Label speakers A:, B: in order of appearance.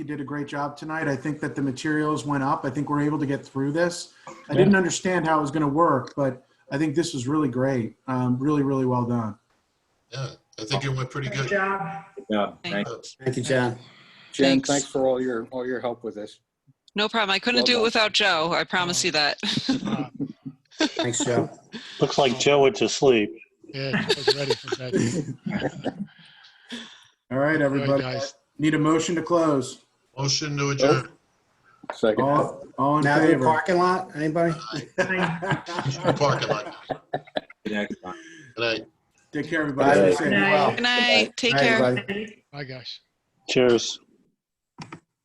A: you did a great job tonight. I think that the materials went up. I think we're able to get through this. I didn't understand how it was going to work, but I think this was really great. Um, really, really well done.
B: Yeah, I think it went pretty
C: Good
B: good.
C: job.
D: job. Thank-
B: Uh,
E: Thank you, John.
F: Jen,
G: Thanks.
F: thanks for all your, all your help with this.
G: No problem. I couldn't
F: Well
G: do it
F: done. Oh.
G: without Joe. I promise you that.
E: Thanks, Joe.
H: Looks like Joe went to sleep.
C: Yeah, I was ready for that.
A: All right, everybody.
C: All right, guys.
A: Need a motion to close.
B: Motion to adjourn.
F: Second.
A: All, all in
E: Now the
A: favor?
E: parking lot, anybody?
B: Parking lot.
D: Next one.
B: Good night.
A: Take care, everybody. Stay safe.
C: Good night.
G: Good night. Take
E: Bye,
G: care.
E: everybody.
C: Bye, guys.
H: Cheers.